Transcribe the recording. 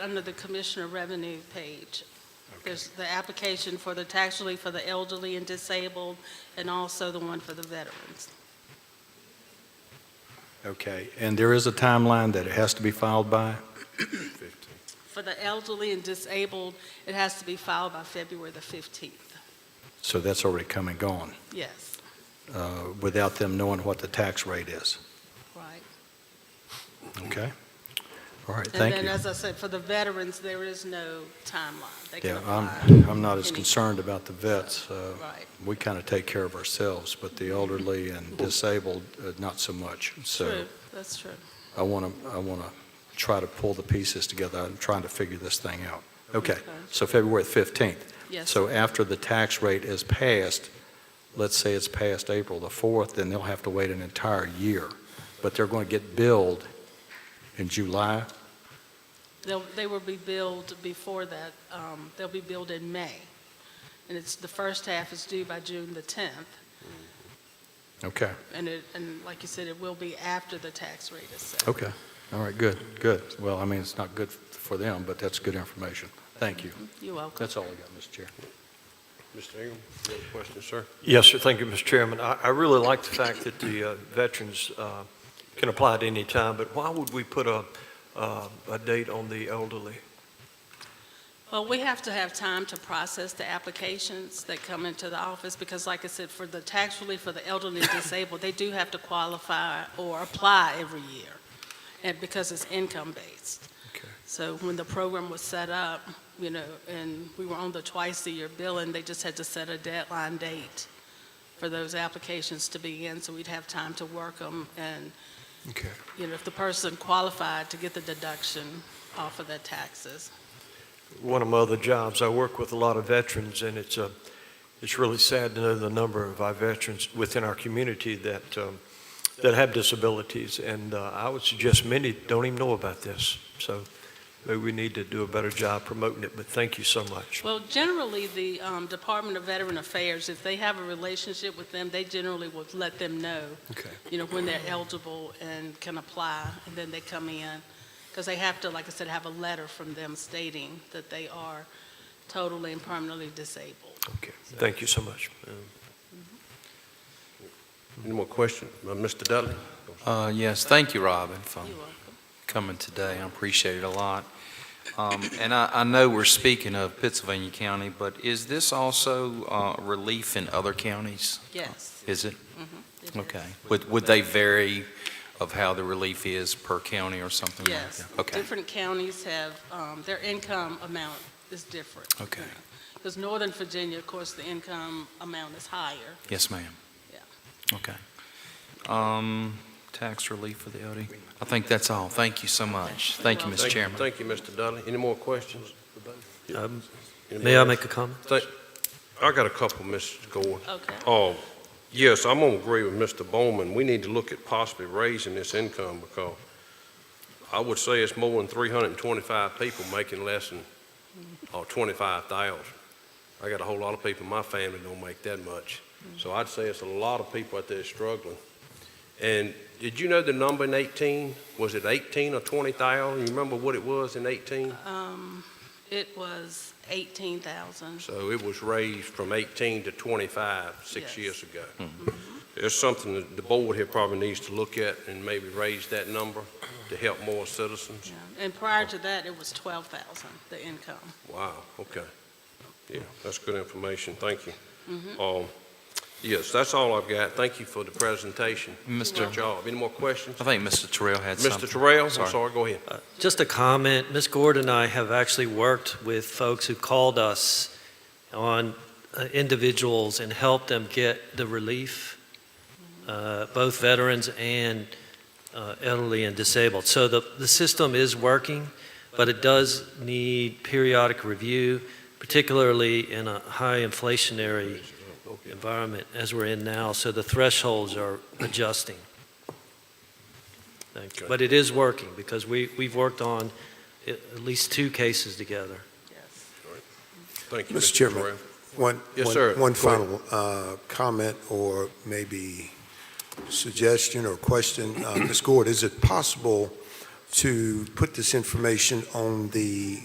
under the Commissioner Revenue page. There's the application for the tax relief for the elderly and disabled, and also the one for the veterans. Okay, and there is a timeline that it has to be filed by? For the elderly and disabled, it has to be filed by February the 15th, So that's already come and gone, yes, uh, without them knowing what the tax rate is, right? okay? All right, thank And you. then, as I said, for the veterans, there is no timeline. They can Yeah, I'm, apply I'm not as any- concerned about the vets. uh, Right. We kind of take care of ourselves, but the elderly and disabled, uh, not so much. So True, that's true. I want to, I want to try to pull the pieces together. I'm trying to figure this thing out. Okay, Okay. so February 15th. Yes, So after the tax rate is passed, let's say it's passed April the 4th, then they'll have to wait an entire year. But they're going to get billed in July? they'll, they will be billed before that, um, they'll be billed in May. And it's, the first half is due by June the 10th, Okay, and it, and like you said, it will be after the tax rate is set. okay. All right, good, good. Well, I mean, it's not good for them, but that's good information. Thank you. You're welcome. That's all I got, Mr. Chair. Mr. Ingram, you have a question, sir? Yes, sir. Thank you, Mr. Chairman. I, I really like the fact that the uh, veterans uh, can apply at any time, but why would we put a, uh, a date on the elderly? Well, we have to have time to process the applications that come into the office, because like I said, for the tax relief for the elderly and disabled, they do have to qualify or apply every year, and because it's income-based. Okay. So when the program was set up, you know, and we were on the twice-a-year billing, they just had to set a deadline date for those applications to be in, so we'd have time to work them, and, Okay. you know, if the person qualified to get the deduction off of their taxes. One of my other jobs, I work with a lot of veterans, and it's, uh, it's really sad to know the number of our veterans within our community that, um, that have disabilities, and uh, I would suggest many don't even know about this. So maybe we need to do a better job promoting it, but thank you so much. Well, generally, the um, Department of Veteran Affairs, if they have a relationship with them, they generally will let them know, Okay. you know, when they're eligible and can apply, and then they come in. Because they have to, like I said, have a letter from them stating that they are totally and permanently disabled. Okay. Thank you so much. Any more questions? Uh, Mr. Dudley? Uh, Yes, thank you, Robin, for You're welcome. coming today. I appreciate it a lot. Um, And I I know we're speaking of Pennsylvania County, but is this also uh, relief in other counties? Yes. Mm-hmm. Is it? it is. Okay. Would would they vary of how the relief is per county or something like that? Yes. Okay, Different counties have, um, their income amount is different. okay. Because Northern Virginia, of course, the income amount is higher. Yes, ma'am. Yeah. Okay. Um, Tax relief for the LD? I think that's all. Thank you so much. Thank you, Well- Mr. Thank- Chairman. Thank you, Mr. Dudley. Any more questions? Um, Any May I more- make a comment? Thank- I got a couple, Mrs. Gordon. Okay. Oh, yes, I'm gonna agree with Mr. Bowman. We need to look at possibly raising this income because I would say it's more than three hundred and twenty-five people making less than, or twenty-five thousand. I got a whole lot of people in my family don't make that much. So I'd say it's a lot of people out there struggling. And did you know the number in eighteen? Was it eighteen or twenty thousand? You remember what it was in eighteen? Um, It was 18,000. So it was raised from 18 to 25, six Yes. years ago. Hmm. There's something that the board here probably needs to look at and maybe raise that number to help more citizens. yeah. And prior to that, it was 12,000, the income. Wow, okay. Yeah, that's good information, thank you. Mm-hmm. Um, Yes, that's all I've got, thank you for the presentation. Mr. Good job. Any more questions? I think Mr. Terrell had something. Mr. Terrell, I'm Sorry. sorry, go ahead. Just a comment, Ms. Gord and I have actually worked with folks who called us on uh, individuals and helped them get the relief, uh, both veterans and uh, elderly and disabled. So the, the system is working, but it does need periodic review, particularly in a high inflationary environment as we're in now, so the thresholds are adjusting. Thank Okay. you. But it is working, because we, we've worked on at at least two cases together. Yes. Thank you, Mr. Mr. Chairman. Terrell. One, Yes, one- sir. One Go ahead. final uh, comment or maybe suggestion or question. Uh, Ms. Gord, is it possible to put this information on the